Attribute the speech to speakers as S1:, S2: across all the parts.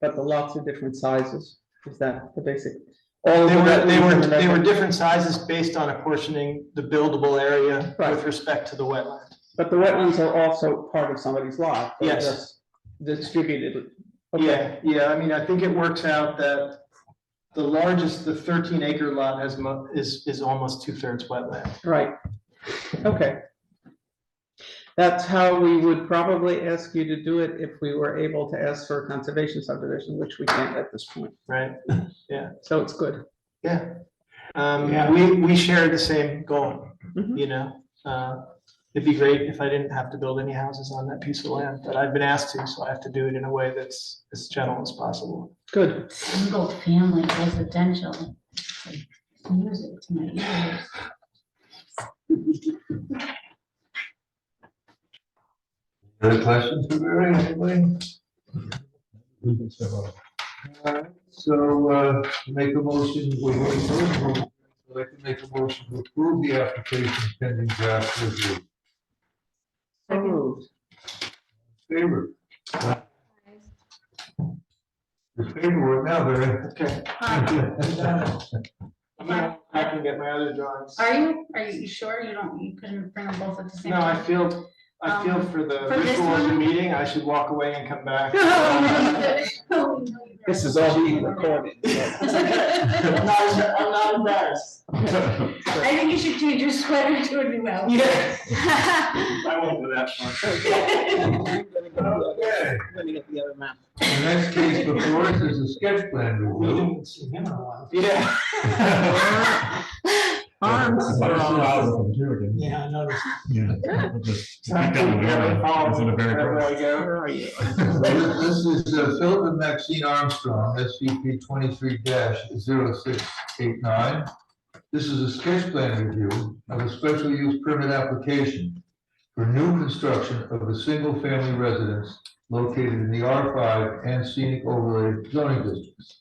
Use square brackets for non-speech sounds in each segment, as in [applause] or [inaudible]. S1: but the lots are different sizes, is that the basic? All of
S2: They
S1: them
S2: were,
S1: that
S2: they
S1: we
S2: were,
S1: can
S2: they were
S1: remember.
S2: different sizes based on apportioning the buildable area with
S1: Right.
S2: respect to the wetland.
S1: But the wetlands are also part of somebody's lot. they're
S2: Yes.
S1: just Distributed. Okay.
S2: Yeah, yeah, I mean, I think it works out that the largest, the thirteen acre lot has mo- is, is almost two thirds wetland.
S1: Right, okay. That's how we would probably ask you to do it if we were able to ask for a conservation subdivision, which we can't at this point,
S2: right?
S1: so it's good.
S2: Yeah. Um,
S3: Yeah.
S2: we, we share the same goal,
S1: Mhm.
S2: you know? Uh, it'd be great if I didn't have to build any houses on that piece of land, but I've been asked to, so I have to do it in a way that's as gentle as possible.
S1: Good,
S4: single family residential. Music to my ears.
S3: Other questions for Mary, anybody? Alright, So, uh, make a motion, we're going to, I'd like to make a motion to approve the application pending draft review.
S1: So moved.
S3: Favor? The favor, now,
S2: Okay.
S3: Mary.
S2: I'm gonna, I can get my other drawings.
S4: Are you, are you sure you don't, you couldn't bring them both at the same
S2: No, I
S4: time?
S2: feel, I feel
S4: Um,
S2: for the
S4: for this
S2: ritual of the
S4: one?
S2: meeting, I should walk away and come
S4: [laughs]
S2: back.
S1: This is all being recorded.
S4: [laughs] I
S2: I'm not embar- I'm not embarrassed.
S4: think you should change your sweater to a new [laughs] outfit.
S2: Yeah, [laughs] I won't do that one.
S3: Okay,
S1: Let me get the other map.
S3: the next case before us is a sketch plan review.
S2: see him in a while. Yeah.
S1: Armstrong.
S2: Yeah, I noticed.
S5: Yeah.
S2: I think we have a follow-
S5: It's in a very
S2: wherever I go.
S1: Where are you?
S3: This is uh, Philip and Maxine Armstrong, SCP twenty-three 689 This is a sketch plan review of a special use permit application for new construction of a single-family residence located in the R five and scenic overlay zoning districts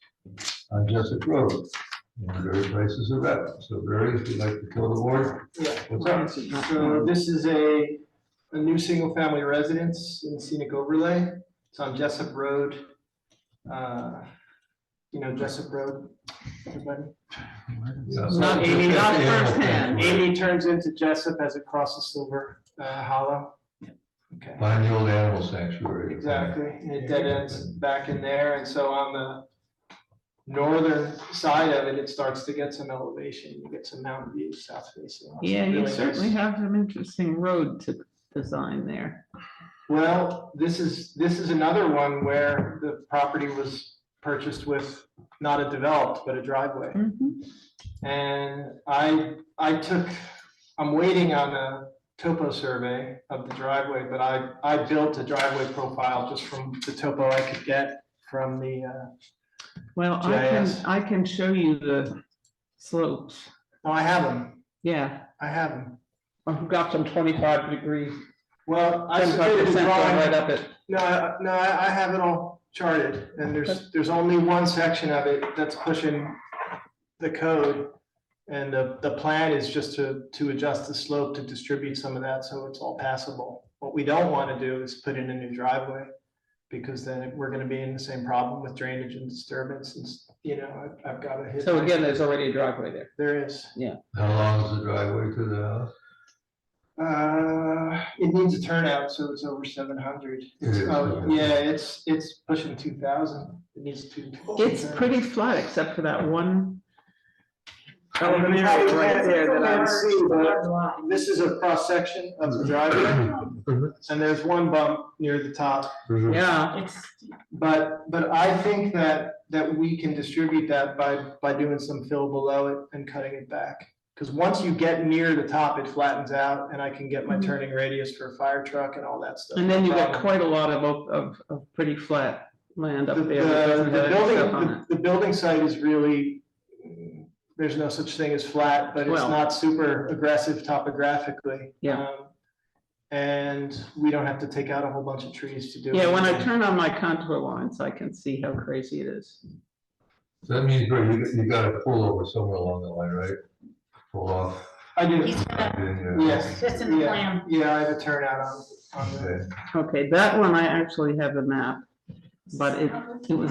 S3: on Jessup Road. And various places are up, so Barry, if you'd like to kill the board, what's up?
S2: So this is a, a new single-family residence in scenic overlay. It's on Jessup Road. Uh, You know Jessup Road, everybody? Not Amy, not
S3: firsthand.
S2: Amy turns into Jessup as it crosses Silver uh, Hollow. Okay.
S3: Find the old animal sanctuary.
S2: Exactly, and it dead ends back in there, and so on the northern side of it, it starts to get some elevation, you get some mountain views south facing. It's
S1: Yeah, you
S2: really
S1: certainly
S2: nice.
S1: have some interesting road to design there.
S2: Well, this is, this is another one where the property was purchased with not a developed, but a driveway.
S1: Mhm.
S2: And I, I took, I'm waiting on a topo survey of the driveway, but I, I built a driveway profile just from the topo I could get from the, uh,
S1: Well, I can,
S2: GIS.
S1: I can show you the slopes,
S2: No, I have them.
S1: yeah.
S2: I have them.
S1: I've got some twenty-five degree,
S2: Well, I
S1: twenty-five
S2: submitted the
S1: percent going right
S2: drawing.
S1: up it.
S2: No, I- no, I I have it all charted and
S1: Okay.
S2: there's, there's only one section of it that's pushing the code. And the, the plan is just to, to adjust the slope to distribute some of that so it's all passable. What we don't want to do is put in a new driveway because then we're going to be in the same problem with drainage and disturbance and, s- you know, I- I've got to hit.
S1: So
S2: my-
S1: again, there's already a driveway there.
S2: There is.
S3: How long is the driveway to the house?
S2: Uh, it needs a turnout, so it's over seven hundred.
S3: It is,
S2: Oh,
S3: yeah.
S2: yeah, it's, it's pushing two thousand, it needs two.
S1: It's pretty flat except for that one.
S2: Elevator right there that I see, but
S4: Why?
S2: This is a cross section of the driveway, and there's one bump near the top,
S1: Yeah,
S4: It's,
S2: but, but I think that, that we can distribute that by, by doing some fill below it and cutting it back. Cause once you get near the top, it flattens out, and I can get my
S1: Mhm.
S2: turning radius for a fire truck and all that stuff.
S1: and then
S2: no
S1: you got
S2: problem.
S1: quite a lot of, op- of, of pretty flat land
S2: The,
S1: up there. that
S2: the-
S1: doesn't
S2: the
S1: have any
S2: building,
S1: stuff on it.
S2: the- the building site is really, there's no such thing as flat, but it's
S1: Well-
S2: not super aggressive topographically.
S1: Yeah.
S2: Um, And we don't have to take out a whole bunch of trees to do.
S1: Yeah, when I
S2: anything.
S1: turn on my contour lines, I can see how crazy it is.
S3: So that means, Barry, you, you gotta pull over somewhere along the line, right? Pull off.
S2: I do,
S4: [laughs] he's got,
S2: yes.
S4: that's in the
S2: yeah,
S4: plan.
S2: Yeah, I have a turnout on, on the.
S3: Okay.
S1: Okay, that one I actually have a map, but it, it was